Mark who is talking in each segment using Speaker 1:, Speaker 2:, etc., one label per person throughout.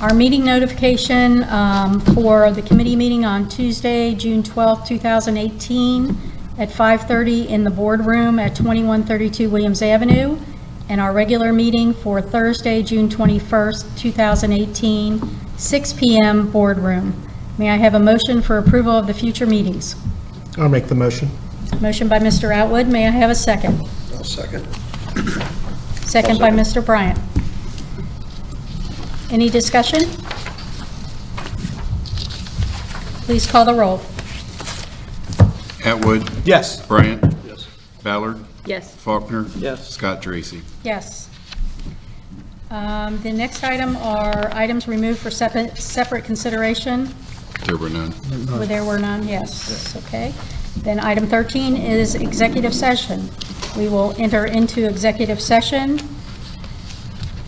Speaker 1: Our meeting notification um, for the committee meeting on Tuesday, June 12, 2018, at 5:30 in the boardroom at 2132 Williams Avenue, and our regular meeting for Thursday, June 21st, 2018, 6 PM boardroom. May I have a motion for approval of the future meetings?
Speaker 2: I'll make the motion.
Speaker 1: Motion by Mr. Atwood, may I have a second?
Speaker 3: I'll second.
Speaker 1: Second by Mr. Bryant. Any discussion? Please call the roll.
Speaker 4: Atwood.
Speaker 2: Yes.
Speaker 4: Bryant. Yes. Ballard.
Speaker 5: Yes.
Speaker 4: Faulkner.
Speaker 2: Yes.
Speaker 4: Scott Dracy.
Speaker 1: Yes. Um, The next item are items removed for separate separate consideration.
Speaker 4: There were none.
Speaker 1: Where there were none, yes, okay. Then item 13 is executive session. We will enter into executive session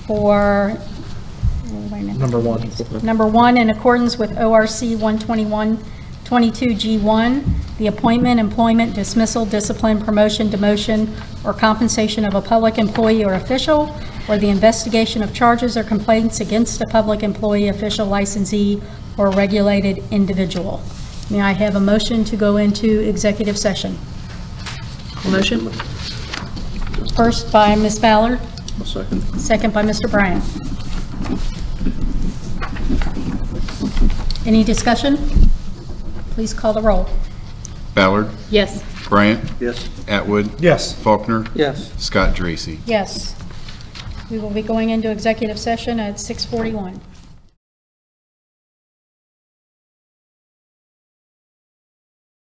Speaker 1: for, oh, wait a minute.
Speaker 2: Number one.
Speaker 1: Number one, in accordance with ORC 121-22G1, the appointment, employment, dismissal, discipline, promotion, demotion, or compensation of a public employee or official, or the investigation of charges or complaints against a public employee, official, licensee, or regulated individual. May I have a motion to go into executive session?
Speaker 5: Motion?
Speaker 1: First by Ms. Ballard,
Speaker 3: I'll second.
Speaker 1: second by Mr. Bryant. Any discussion? Please call the roll.
Speaker 4: Ballard.
Speaker 5: Yes.
Speaker 4: Bryant.
Speaker 3: Yes.
Speaker 4: Atwood.
Speaker 2: Yes.
Speaker 4: Faulkner.
Speaker 3: Yes.
Speaker 4: Scott Dracy.
Speaker 1: Yes. We will be going into executive session at 6:41.